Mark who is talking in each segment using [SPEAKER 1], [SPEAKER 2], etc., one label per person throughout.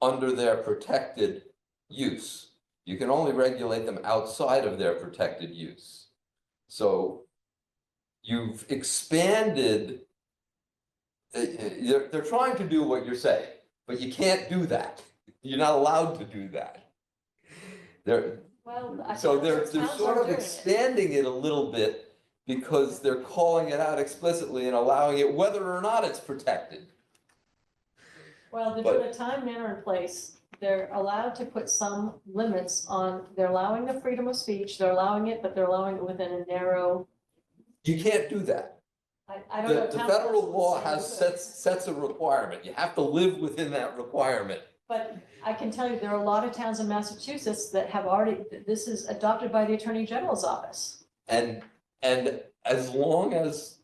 [SPEAKER 1] under their protected use. You can only regulate them outside of their protected use. So you've expanded. uh, uh, They're, they're trying to do what you're saying, but you can't do that. You're not allowed to do that. They're,
[SPEAKER 2] Well, I
[SPEAKER 1] so
[SPEAKER 2] thought
[SPEAKER 1] they're,
[SPEAKER 2] those
[SPEAKER 1] they're
[SPEAKER 2] towns
[SPEAKER 1] sort
[SPEAKER 2] are
[SPEAKER 1] of
[SPEAKER 2] doing it.
[SPEAKER 1] expanding it a little bit because they're calling it out explicitly and allowing it whether or not it's protected.
[SPEAKER 2] Well, they're doing a time, manner, and place. They're allowed to put some limits on, they're allowing the freedom of speech, they're allowing it, but they're allowing it within a narrow,
[SPEAKER 1] You can't do that.
[SPEAKER 2] I, I don't know.
[SPEAKER 1] The, the
[SPEAKER 2] town
[SPEAKER 1] federal
[SPEAKER 2] council would
[SPEAKER 1] law
[SPEAKER 2] say
[SPEAKER 1] has
[SPEAKER 2] you could.
[SPEAKER 1] sets, sets a requirement. You have to live within that requirement.
[SPEAKER 2] But I can tell you, there are a lot of towns in Massachusetts that have already, this is adopted by the Attorney General's office.
[SPEAKER 1] And, and as long as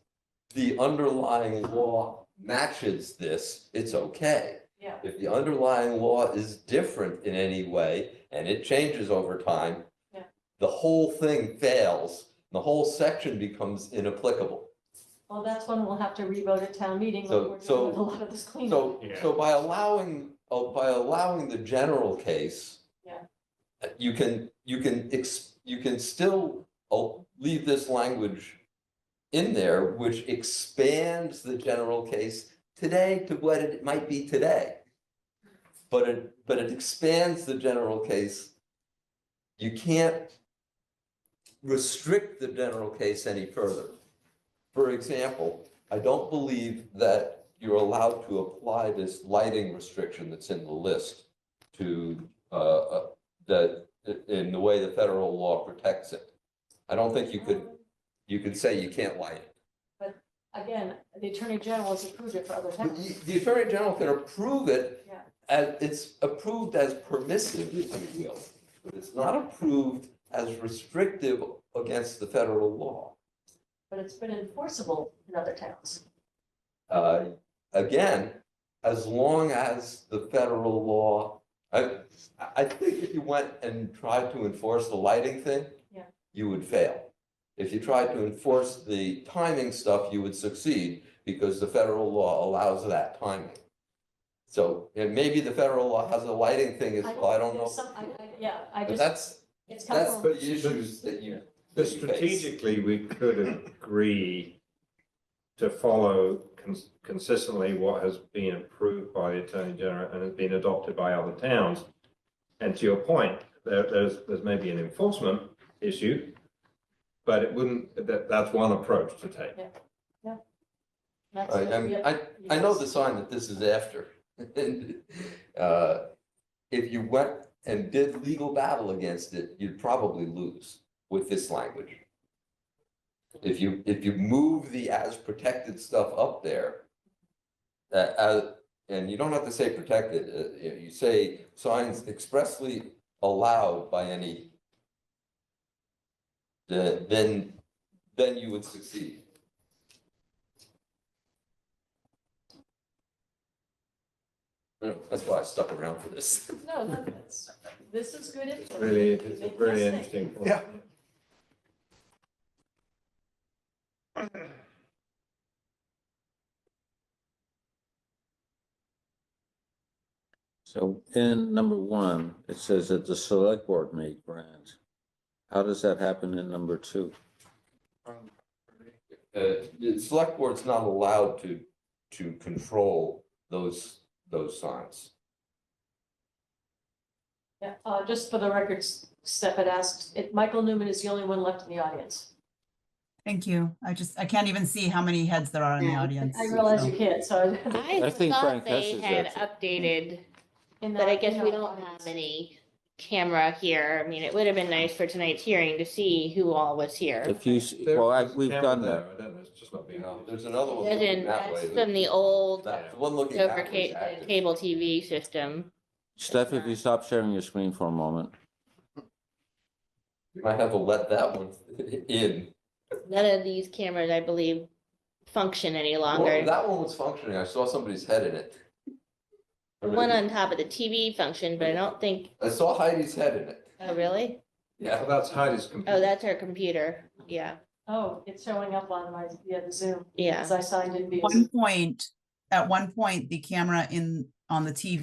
[SPEAKER 1] the underlying law matches this, it's okay.
[SPEAKER 2] Yeah.
[SPEAKER 1] If the underlying law is different in any way, and it changes over time.
[SPEAKER 2] Yeah.
[SPEAKER 1] The whole thing fails, the whole section becomes inapplicable.
[SPEAKER 2] Well, that's when we'll have to revote at town meeting,
[SPEAKER 1] So-
[SPEAKER 2] when we're
[SPEAKER 1] so-
[SPEAKER 2] doing with a lot of this cleanup.
[SPEAKER 1] So,
[SPEAKER 3] Yeah.
[SPEAKER 1] so by allowing, uh, by allowing the general case.
[SPEAKER 2] Yeah.
[SPEAKER 1] uh, You can, you can, ex you can still uh, leave this language in there, which expands the general case today to what it might be today. But it, but it expands the general case. You can't restrict the general case any further. For example, I don't believe that you're allowed to apply this lighting restriction that's in the list to, uh, uh, the, in the way the federal law protects it. I don't think you could, you could say you can't light it.
[SPEAKER 2] Again, the Attorney General has approved it for other
[SPEAKER 1] But
[SPEAKER 2] towns.
[SPEAKER 1] you- The Attorney General can approve it
[SPEAKER 2] Yeah.
[SPEAKER 1] as, it's approved as permissive, if you will. But it's not approved as restrictive against the federal law.
[SPEAKER 2] but it's been enforceable in other towns.
[SPEAKER 1] uh, again, as long as the federal law, I, I think if you went and tried to enforce the lighting thing,
[SPEAKER 2] Yeah.
[SPEAKER 1] you would fail. If you tried to enforce the timing stuff, you would succeed because the federal law allows that timing. So, and maybe the federal law has a lighting thing as well, I don't
[SPEAKER 2] There's
[SPEAKER 1] know.
[SPEAKER 2] some- I- I- Yeah, I
[SPEAKER 1] But
[SPEAKER 2] just,
[SPEAKER 1] that's,
[SPEAKER 2] it's come
[SPEAKER 1] that's
[SPEAKER 2] from,
[SPEAKER 1] the issues that you.
[SPEAKER 3] But
[SPEAKER 1] that you face.
[SPEAKER 3] strategically, we could agree to follow cons- consistently what has been approved by the Attorney General and has been adopted by other towns. And to your point, there, there's, there's maybe an enforcement issue, but it wouldn't, that, that's one approach to take.
[SPEAKER 2] that's,
[SPEAKER 1] I, I'm-
[SPEAKER 2] yeah,
[SPEAKER 1] I, I know the sign that this is after. And, uh, If you went and did legal battle against it, you'd probably lose with this language. If you, if you move the as protected stuff up there, uh, uh, and you don't have to say protected, uh, you- you say signs expressly allowed by any, the- then, then you would succeed. Yeah, That's why I stuck around for this.
[SPEAKER 2] No, no, that's, this is good.
[SPEAKER 3] It's
[SPEAKER 2] info.
[SPEAKER 3] really, it's a really interesting. point.
[SPEAKER 1] Yeah.
[SPEAKER 4] So in number one, it says that the select board may grant. How does that happen in number two?
[SPEAKER 1] Uh, the select board's not allowed to, to control those, those signs.
[SPEAKER 2] Yeah, uh, just for the records, Steph had asked, it, Michael Newman is the only one left in the audience.
[SPEAKER 5] Thank you. I just, I can't even see how many heads there are in the
[SPEAKER 6] Yeah,
[SPEAKER 5] audience.
[SPEAKER 2] I realize
[SPEAKER 5] so-
[SPEAKER 2] you can't, so.
[SPEAKER 6] I
[SPEAKER 4] think Frank
[SPEAKER 6] thought they
[SPEAKER 4] Hess is
[SPEAKER 6] had
[SPEAKER 4] actually-
[SPEAKER 6] updated,
[SPEAKER 2] in
[SPEAKER 6] but I
[SPEAKER 2] the-
[SPEAKER 6] guess
[SPEAKER 2] in
[SPEAKER 6] we
[SPEAKER 2] the
[SPEAKER 6] don't
[SPEAKER 2] audience.
[SPEAKER 6] have any camera here. I mean, it would have been nice for tonight's hearing to see who all was here.
[SPEAKER 4] If you, s- well, I,
[SPEAKER 3] There's a
[SPEAKER 4] we've
[SPEAKER 3] camera
[SPEAKER 4] done
[SPEAKER 3] there,
[SPEAKER 4] that.
[SPEAKER 3] I don't know, it's just not
[SPEAKER 1] You
[SPEAKER 3] being.
[SPEAKER 1] know, there's another one looking
[SPEAKER 6] Doesn't,
[SPEAKER 1] that way.
[SPEAKER 6] that's from the old
[SPEAKER 1] That, the one looking that
[SPEAKER 6] over
[SPEAKER 1] way is
[SPEAKER 6] ca- uh,
[SPEAKER 1] active.
[SPEAKER 6] cable TV system.
[SPEAKER 4] Steph, if you stop sharing your screen for a moment.
[SPEAKER 1] You Might have to let that one in.
[SPEAKER 6] None of these cameras, I believe, function any
[SPEAKER 1] Well,
[SPEAKER 6] longer.
[SPEAKER 1] That one was functioning, I saw somebody's head in it.
[SPEAKER 6] The one on top of the TV functioned, but I don't think,
[SPEAKER 1] I saw Heidi's head in it,
[SPEAKER 6] oh, really?
[SPEAKER 1] yeah.
[SPEAKER 3] Oh, That's Heidi's computer.
[SPEAKER 6] Oh, that's our computer. Yeah,
[SPEAKER 2] Oh, it's showing up on my, yeah, the Zoom,
[SPEAKER 6] yeah.
[SPEAKER 2] as I signed in via Zoom.
[SPEAKER 5] One point, at one point, the camera in, on the TV